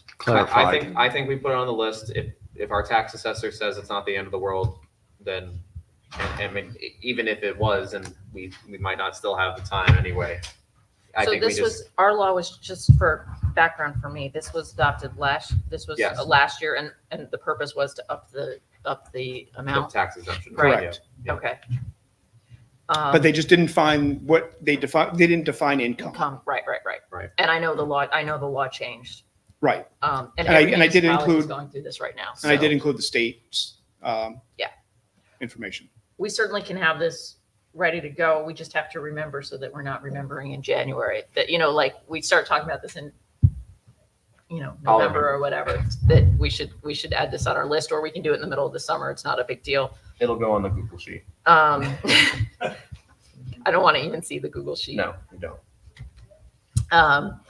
I clarified. I think, I think we put it on the list. If, if our tax assessor says it's not the end of the world, then, and, and I mean, e- even if it was, and we, we might not still have the time anyway. I So think we this just, was, our law was just for background for me. This was adopted last, this was Yes. last year and, and the purpose was to up the, up the the amount. tax exemption. Right. yeah. Correct. yeah. Okay. Um, But they just didn't find what they define, they didn't define income. Come, right, right, right. Right. And I know the law, I know the law changed. Right. Um, and And I- every and I did municipality is include- going through this right now. And I so did include the state's, um, Yeah. Information. We certainly can have this ready to go. We just have to remember so that we're not remembering in January that, you know, like we start talking about this in, you know, I'll November or whatever, that we should, we should add this on our list or we can do it in the middle of the summer. It's not a big deal. It'll go on the Google sheet. Um, I don't want to even see the Google sheet. No, you don't. Um,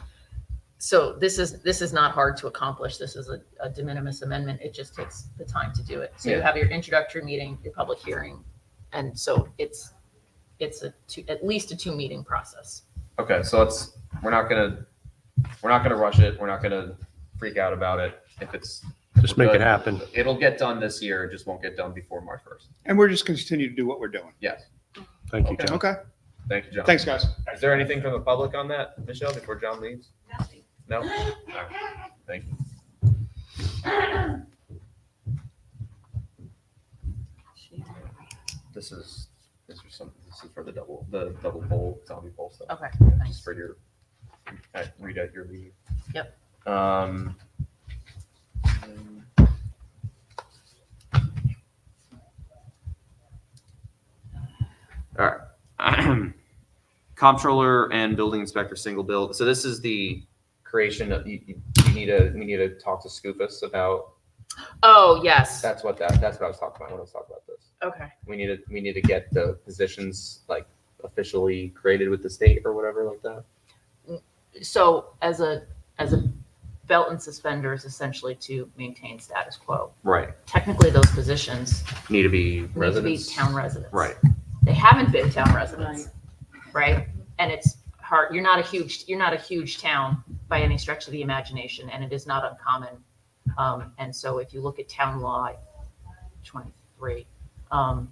so this is, this is not hard to accomplish. This is a, a de minimis amendment. It just takes the time to do it. So you Yeah. have your introductory meeting, your public hearing. And so it's, it's a two, at least a two meeting process. Okay, so let's. We're not gonna. We're not gonna rush it. We're not gonna freak out about it. If it's, Just make it happen. it'll get done this year. It just won't get done before March first. And we're just continue to do what we're doing. Yes. Thank you, Okay. John. Okay, Thank you, John. thanks, guys. Is there anything from the public on that, Michelle, before John leaves? No? Thank you. This is this is something. This is for the double the double bowl zombie bowl stuff. Okay, Yeah, thanks. Just for your at, read out your meeting. Yep. Um. All right. Comptroller and building inspector single bill. So this is the creation of you, you, you need to we need to talk to Scoopus about Oh, yes. that's what that that's what I was talking about when I was talking about this. Okay. We need to we need to get the positions like officially created with the state or whatever like that. So as a, as a belt and suspenders essentially to maintain status quo. Right. Technically, those positions Need to be need to be residents. town residents. Right. They haven't been town residents, right? And it's hard, you're not a huge, you're not a huge town by any stretch of the imagination, and it is not uncommon. Um, and so if you look at town law twenty-three, um,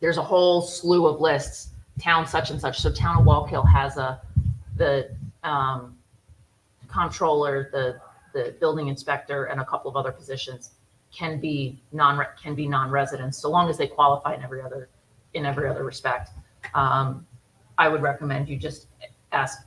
there's a whole slew of lists, town such and such. So town of Wallkill has a, the, um, comptroller, the, the building inspector, and a couple of other positions can be non, can be non-residents, so long as they qualify in every other, in every other respect. Um, I would recommend you just ask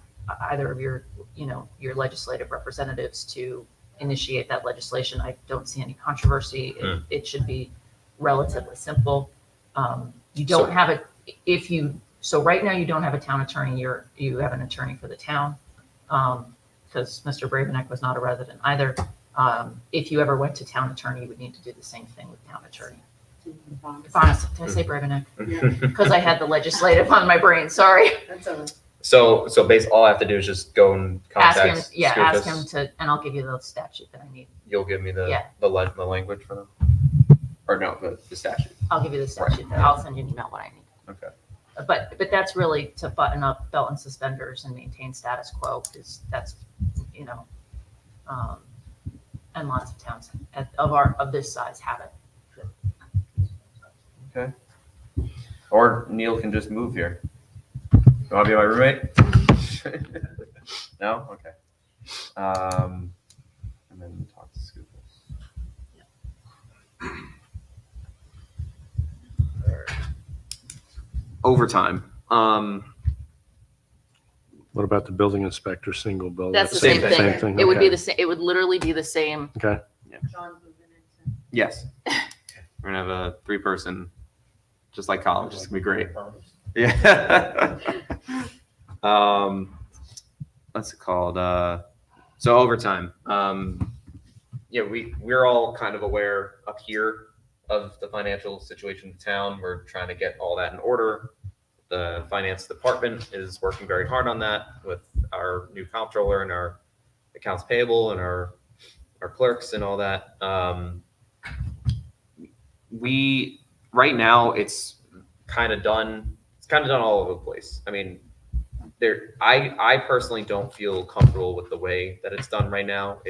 either of your, you know, your legislative representatives to initiate that legislation. I don't see any controversy. It, it should be relatively simple. Um, you don't So- have a, if you, so right now you don't have a town attorney, you're, you have an attorney for the town. Um, because Mr. Bravenek was not a resident either. Um, if you ever went to town attorney, you would need to do the same thing with town attorney. Honestly, did I say Bravenek? Because I had the legislative on my brain, sorry. So so basically all I have to do is just go and Ask contact him, yeah, ask him Scoopus. to, and I'll give you the statute that I need. You'll give me the Yeah. the, le- the language for them. Or no, the, the statute. I'll give you the statute, Right. I'll send you an email what I need. Okay. But, but that's really to button up belt and suspenders and maintain status quo, because that's, you know, um, and lots of towns at- of our, of this size have it. Or Neil can just move here. You want to be my roommate? no? Okay. Um, and then talk to Scoopus. Overtime. Um, What about the building inspector, single bill? That's the Same same thing. thing. Same thing, It would be okay. the same, it would literally be the same. Okay, yes. We're going to have a three person, just like college. It's going to be great. Yeah. um, what's it called? Uh, so overtime. Um, yeah, we, we're all kind of aware up here of the financial situation of town. We're trying to get all that in order. The finance department is working very hard on that with our new comptroller and our accounts payable and our, our clerks and all that. Um, we right now it's kind of done, it's kind of done all over the place. I mean, there, I, I personally don't feel comfortable with the way that it's done right now.